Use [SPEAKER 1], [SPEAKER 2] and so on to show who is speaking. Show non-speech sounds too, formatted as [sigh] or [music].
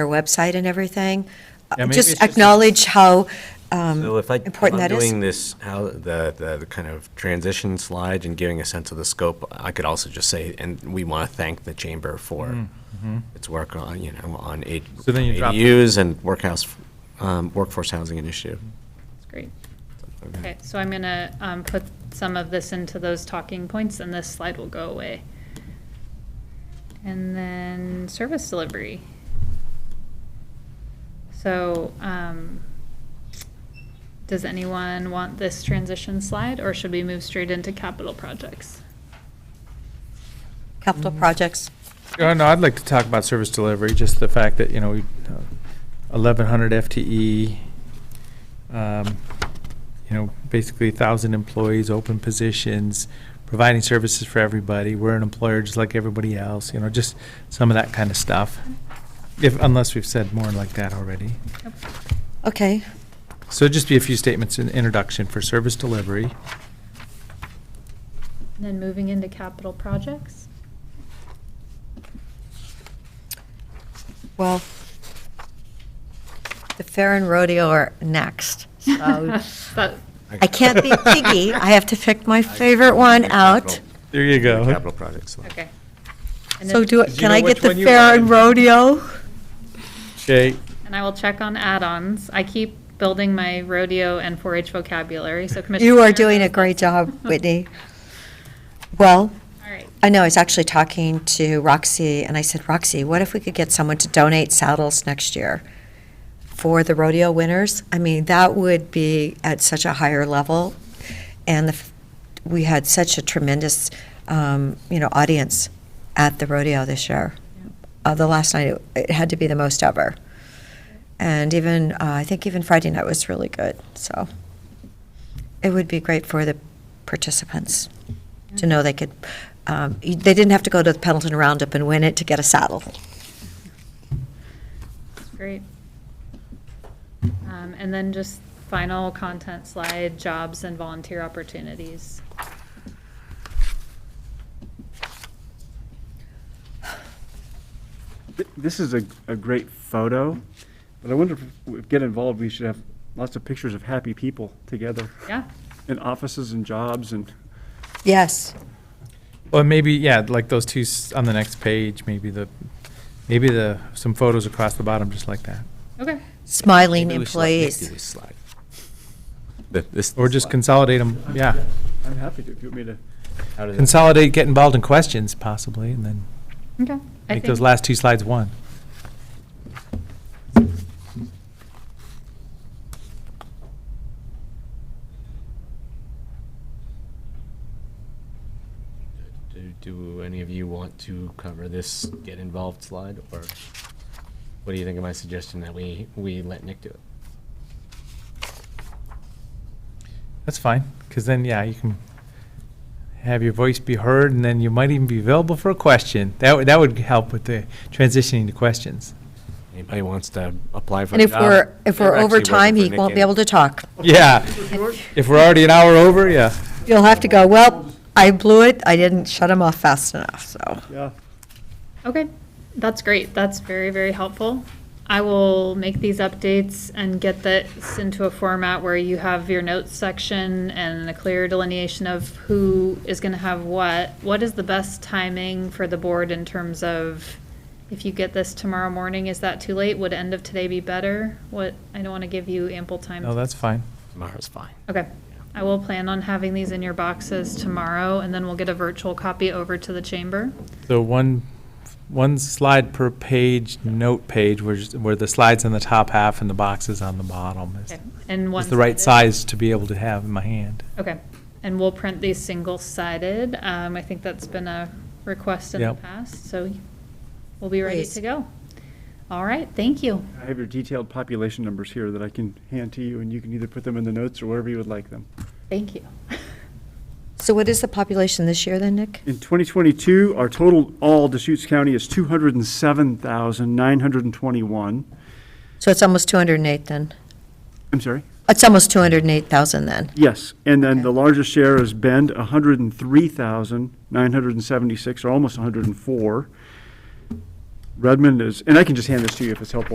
[SPEAKER 1] our website and everything. Uh,
[SPEAKER 2] Yeah, maybe
[SPEAKER 1] Just
[SPEAKER 2] it's just a-
[SPEAKER 1] acknowledge how um,
[SPEAKER 3] So if I, if
[SPEAKER 1] important
[SPEAKER 3] I'm
[SPEAKER 1] that is.
[SPEAKER 3] doing this, how, the, the the kind of transition slide and giving a sense of the scope, I could also just say, and we want to thank the chamber for
[SPEAKER 2] Mm-hmm.
[SPEAKER 3] its work on, you know, on aid-
[SPEAKER 2] Mm. So then you drop-
[SPEAKER 3] ADUs and workhouse, um, workforce housing initiative.
[SPEAKER 4] That's great. Okay, so I'm gonna um, put some of this into those talking points, and this slide will go away. And then service delivery. So, um, does anyone want this transition slide, or should we move straight into capital projects?
[SPEAKER 1] Capital projects.
[SPEAKER 2] Oh, no, I'd like to talk about service delivery, just the fact that, you know, we, uh, eleven hundred FTE, um, you know, basically thousand employees, open positions, providing services for everybody. We're an employer just like everybody else, you know, just some of that kind of stuff. If, unless we've said more like that already.
[SPEAKER 4] Nope.
[SPEAKER 1] Okay,
[SPEAKER 2] So just be a few statements in introduction for service delivery.
[SPEAKER 4] And then moving into capital projects?
[SPEAKER 1] well, the fair and rodeo are next.
[SPEAKER 4] [laughs]
[SPEAKER 1] So
[SPEAKER 4] That-
[SPEAKER 1] I can't
[SPEAKER 2] [laughs]
[SPEAKER 3] [laughs]
[SPEAKER 1] be piggy. I have to pick my favorite one out.
[SPEAKER 2] There you go.
[SPEAKER 3] Capital projects. slide.
[SPEAKER 4] Okay. And
[SPEAKER 1] So
[SPEAKER 4] then-
[SPEAKER 1] do, I-
[SPEAKER 2] Did you
[SPEAKER 1] can
[SPEAKER 2] know
[SPEAKER 1] I
[SPEAKER 2] which
[SPEAKER 1] get the
[SPEAKER 2] one you
[SPEAKER 1] fair
[SPEAKER 2] wanted?
[SPEAKER 1] and rodeo?
[SPEAKER 2] Okay.
[SPEAKER 4] And I will check on add-ons. I keep building my rodeo and 4-H vocabulary, so Commissioner.
[SPEAKER 1] You are doing a great
[SPEAKER 4] [laughs]
[SPEAKER 1] job, Whitney. Well,
[SPEAKER 4] All right,
[SPEAKER 1] I know, I was actually talking to Roxy, and I said, Roxy, what if we could get someone to donate saddles next year for the rodeo winners? I mean, that would be at such a higher level. And the, f- we had such a tremendous, um, you know, audience at the rodeo this year. Uh, the last night, it, it had to be the most ever. And even, uh, I think even Friday night was really good, so it would be great for the participants to know they could, um, y- they didn't have to go to the Pendleton Roundup and win it to get a saddle.
[SPEAKER 4] that's great. Um, And then just final content slide, jobs and volunteer opportunities.
[SPEAKER 5] Th- This is a, a great photo, but I wonder if we get involved, we should have lots of pictures of happy people together
[SPEAKER 4] Yeah,
[SPEAKER 5] in offices and jobs and
[SPEAKER 1] Yes.
[SPEAKER 2] Well, maybe, yeah, like those two s- on the next page, maybe the, maybe the, some photos across the bottom, just like that.
[SPEAKER 4] okay.
[SPEAKER 1] Smiling
[SPEAKER 3] Maybe we should let Nick do
[SPEAKER 1] employees.
[SPEAKER 3] this slide. Th- this-
[SPEAKER 2] Or just consolidate them, yeah.
[SPEAKER 5] I'm happy to, if you want me to.
[SPEAKER 3] How does it-
[SPEAKER 2] Consolidate, get involved in questions possibly, and then
[SPEAKER 4] Okay. I
[SPEAKER 2] make those
[SPEAKER 4] think-
[SPEAKER 2] last two slides one.
[SPEAKER 3] Do- Do any of you want to cover this get involved slide, or what do you think of my suggestion that we, we let Nick do it?
[SPEAKER 2] That's fine, because then, yeah, you can have your voice be heard, and then you might even be available for a question. That would, that would help with the transitioning to questions.
[SPEAKER 3] Anybody wants to apply for
[SPEAKER 1] And
[SPEAKER 3] a
[SPEAKER 1] if
[SPEAKER 3] job?
[SPEAKER 1] we're, if we're
[SPEAKER 3] actually
[SPEAKER 1] over
[SPEAKER 3] working
[SPEAKER 1] time,
[SPEAKER 3] for
[SPEAKER 1] he
[SPEAKER 3] Nick
[SPEAKER 1] won't be
[SPEAKER 3] Gaines.
[SPEAKER 1] able to talk.
[SPEAKER 2] Yeah. If we're already an hour over, yeah.
[SPEAKER 1] You'll have to go, well, I blew it, I didn't shut him off fast enough, so.
[SPEAKER 5] Yeah.
[SPEAKER 4] Okay, that's great. That's very, very helpful. I will make these updates and get this into a format where you have your notes section and a clear delineation of who is gonna have what. What is the best timing for the board in terms of, if you get this tomorrow morning, is that too late? Would end of today be better? What, I don't wanna give you ample time.
[SPEAKER 2] No,
[SPEAKER 4] to-
[SPEAKER 2] that's fine.
[SPEAKER 3] Tomorrow's fine.
[SPEAKER 4] Okay. I will plan on having these in your boxes tomorrow, and then we'll get a virtual copy over to the chamber.
[SPEAKER 2] So one, one slide per page, note page, where, just- where the slide's on the top half and the box is on the bottom. is-
[SPEAKER 4] Okay. And one.
[SPEAKER 2] Is the right size to be able to have in my hand.
[SPEAKER 4] Okay, and we'll print these single-sided. Um, I think that's been a request in the
[SPEAKER 2] Yep.
[SPEAKER 4] past, so we'll be ready
[SPEAKER 1] Please.
[SPEAKER 4] to go. All right, thank you.
[SPEAKER 5] I have your detailed population numbers here that I can hand to you, and you can either put them in the notes or wherever you would like them.
[SPEAKER 4] Thank you.
[SPEAKER 1] So what is the population this year then, Nick?
[SPEAKER 5] In 2022, our total all Deschutes County is 207,921.
[SPEAKER 1] So it's almost 208 then.
[SPEAKER 5] I'm sorry?
[SPEAKER 1] It's almost 208,000 then.
[SPEAKER 5] Yes, and then the
[SPEAKER 1] Okay.
[SPEAKER 5] largest share is Bend, hundred and three thousand, nine hundred and seventy-six, or almost hundred and four. Redmond is, and I can just hand this to you if it's helpful.